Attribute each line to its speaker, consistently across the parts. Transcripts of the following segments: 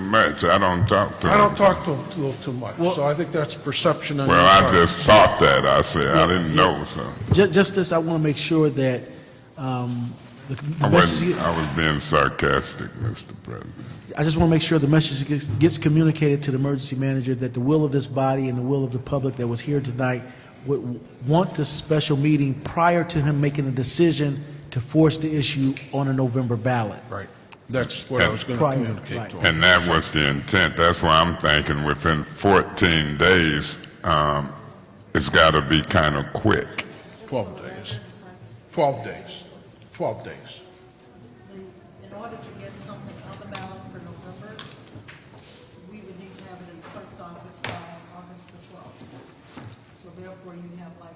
Speaker 1: much. I don't talk to
Speaker 2: I
Speaker 1: them.
Speaker 2: don't talk to him a little too much, so I think that's perception on your
Speaker 1: Well, I
Speaker 2: part.
Speaker 1: just thought that. I said, I didn't
Speaker 3: Yeah,
Speaker 1: know, so
Speaker 3: Ju- Just this, I want to make sure that um, the
Speaker 1: I
Speaker 3: the message,
Speaker 1: wasn't,
Speaker 3: get-
Speaker 1: I was being sarcastic, Mr. President.
Speaker 3: I just want to make sure the message gets- gets communicated to the emergency manager that the will of this body and the will of the public that was here tonight would want this special meeting prior to him making a decision to force the issue on a November ballot.
Speaker 2: Right, that's what I was going to
Speaker 3: Prior,
Speaker 2: communicate
Speaker 3: right.
Speaker 2: to him.
Speaker 1: And that was the intent. That's why I'm thinking within 14 days, um, it's got to be kind of quick.
Speaker 2: 12 days. 12 days. 12 days.
Speaker 4: In order to get something on the ballot for November, we would need to have it in the clerk's office by August the twelfth. So therefore, you have like.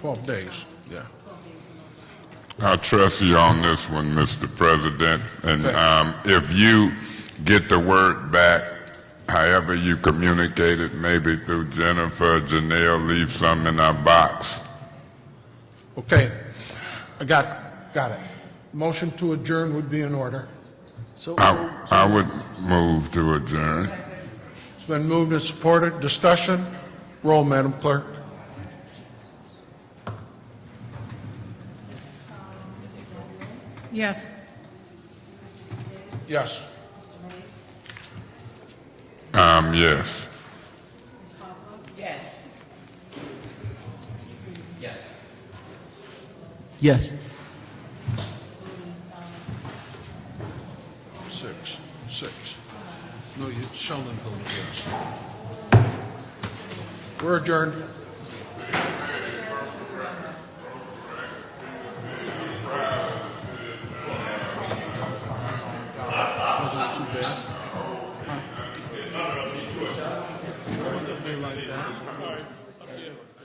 Speaker 2: 12 days, yeah.
Speaker 4: Twelve days in November.
Speaker 1: I trust you on this one, Mr. President. And um, if you get the word back, however you communicate it, maybe through Jennifer, Janelle, leave some in our box.
Speaker 2: Okay, I got, got it. Motion to adjourn would be in order.
Speaker 3: So,
Speaker 1: I, I would move to adjourn.
Speaker 2: It's been moved and supported. Discussion? Roll, Madam Clerk.
Speaker 4: Yes.
Speaker 2: Yes.
Speaker 1: Um, yes.
Speaker 4: Yes.
Speaker 3: yes.
Speaker 2: Six. Six. No, you shall not vote yes. We're adjourned. Wasn't too bad. Huh? They like that.